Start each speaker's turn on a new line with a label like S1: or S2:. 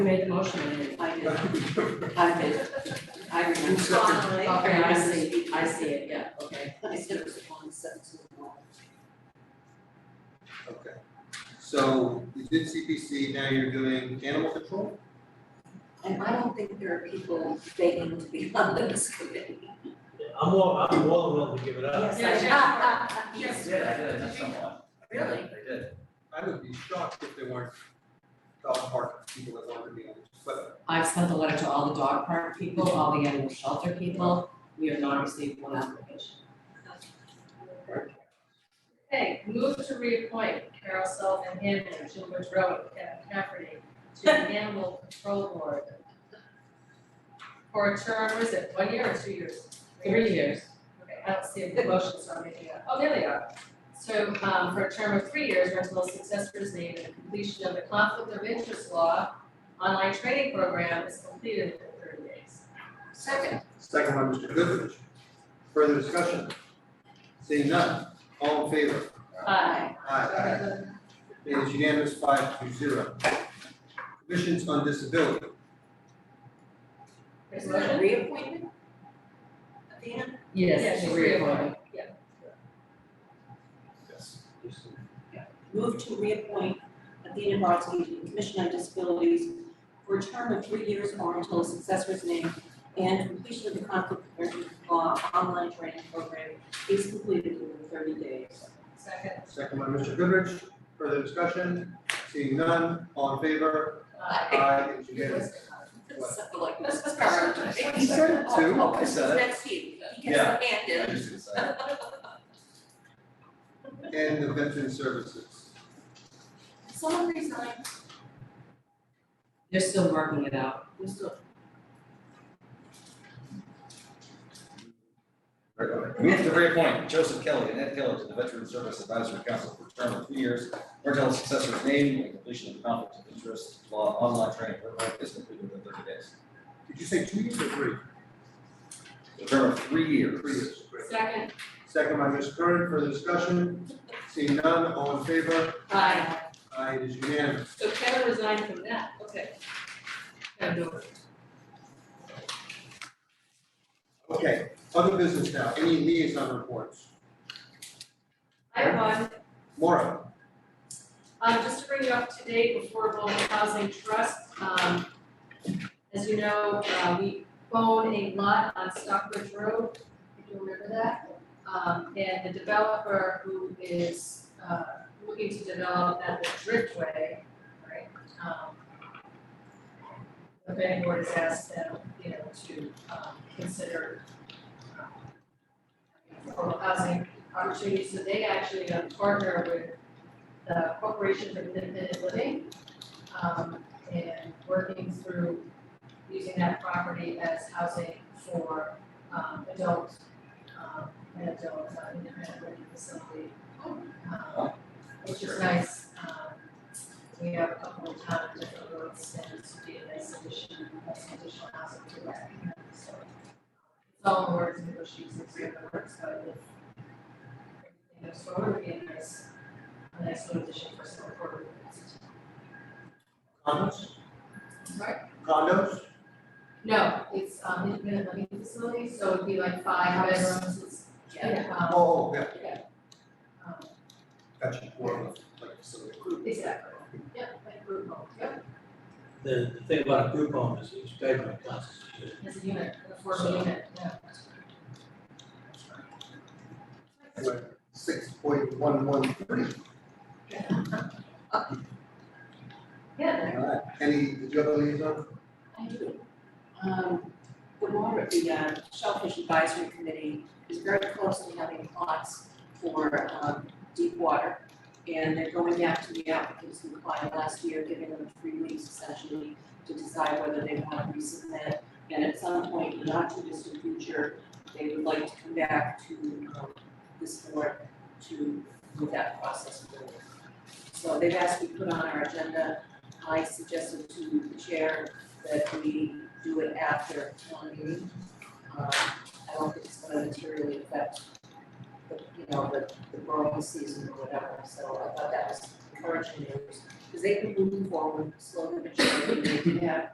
S1: Who made the motion? I did. I did. I remember. Okay, I see, I see it, yeah, okay.
S2: Okay, so you did CPC, now you're doing animal control?
S3: And I don't think there are people begging to be on this committee.
S4: I'm all, I'm more than willing to give it up.
S1: Yes.
S5: Yeah, I did, I met someone.
S1: Really?
S5: I did.
S2: I would be shocked if there weren't dog park people that wanted to be on this, but
S1: I've sent the letter to all the dog park people, all the animal shelter people, we have not received one application.
S6: Okay, move to reappoint Carol Sullivan Hannon of Gilbert Road, Cafferty, to the Animal Control Board. For a term, was it one year or two years?
S1: Three years.
S6: Okay, I don't see the motion, so I'm making it, oh, there they are. So, um, for a term of three years, rental successor's name and completion of the conflict of interest law online training program is completed in thirty days.
S3: Second.
S2: second by Mr. Goodrich. Further discussion? Seeing none, all in favor?
S6: Aye.
S2: Aye. It is unanimous, five to zero. Commissions on disability,
S6: There's a motion?
S3: Reappointment? Athena?
S1: Yes,
S6: she's
S1: three of them.
S6: reappointed. Yeah.
S3: Move to reappoint Athena Brodsky to the Commission on Disabilities for a term of three years or until a successor's name and completion of the conflict of interest law online training program is completed within thirty days.
S6: Second.
S2: second by Mr. Goodrich. Further discussion? Seeing none, all in favor?
S6: Aye.
S2: Aye, it is unanimous. What?
S3: So like
S6: Mrs. Carter.
S2: You said it too.
S3: Oh,
S5: I said it.
S3: That's you. He gets
S5: Yeah.
S3: the hand in.
S5: I just decided.
S2: And the veteran services.
S3: Someone resigned.
S1: They're still working it out.
S3: We're still-
S5: Move to reappoint Joseph Kelly and Ed Keller to the Veteran Service Advisory Council for a term of three years, or until a successor's name and completion of the conflict of interest law online training program is completed within thirty days.
S2: Did you say two years or three?
S5: A term of three years.
S2: Three years, great.
S6: Second.
S2: Second by Ms. Curran, further discussion? Seeing none, all in favor?
S6: Aye.
S2: Aye, it is unanimous.
S6: So Kevin resigned from that, okay. Now do it.
S2: Okay, other business now, any liaison reports?
S6: I have one,
S2: Maura,
S6: um, just to bring you up to date, Affordable Housing Trust, um, as you know, uh, we own a lot on Stockbridge Road, if you remember that. Um, and the developer who is, uh, looking to develop at the Driftway, right? um, The planning board has asked them, you know, to, um, consider um, affordable housing opportunities, so they actually uh, partner with the Corporation for Independent Living. um, and working through using that property as housing for, um, adult, um, and adult uh, independent living facility. Um, Which is nice, um, we have a couple of towns that are really extended to be a nice addition, nice additional housing to that, so. um, It's all in the works, negotiations, it's in the works, but if everything goes forward, it'd be a nice a nice little addition for some reporter.
S2: condos,
S6: Right?
S2: condos,
S6: No, it's um independent living facility, so it'd be like five bedrooms, it's, yeah,
S2: oh,
S6: um,
S2: oh, yeah,
S6: um,
S2: gotcha, Maura, like, so,
S6: exactly. Yep, like group home, yep,
S4: The, the thing about a group home is it's government constituted.
S6: as a unit, an affordable unit, yeah.
S2: six point one one three.
S6: Yeah,
S2: All right, any, did you have a liaison?
S3: I do. Um, the water, the uh, Shellfish Advisory Committee is very close to having plots for, um, deep water. And they're going out to the applicants who applied last year, giving them three weeks essentially to decide whether they want to resubmit. And at some point, in the not too distant future, they would like to come back to, um, this board to move that process forward. So they've asked me to put on our agenda. I suggested to the chair that we do it after town meeting. Um, I don't think it's gonna materially affect the, you know, the, the growing season or whatever, so I thought that was encouraging news. Because they've been moving forward slowly but surely, they did have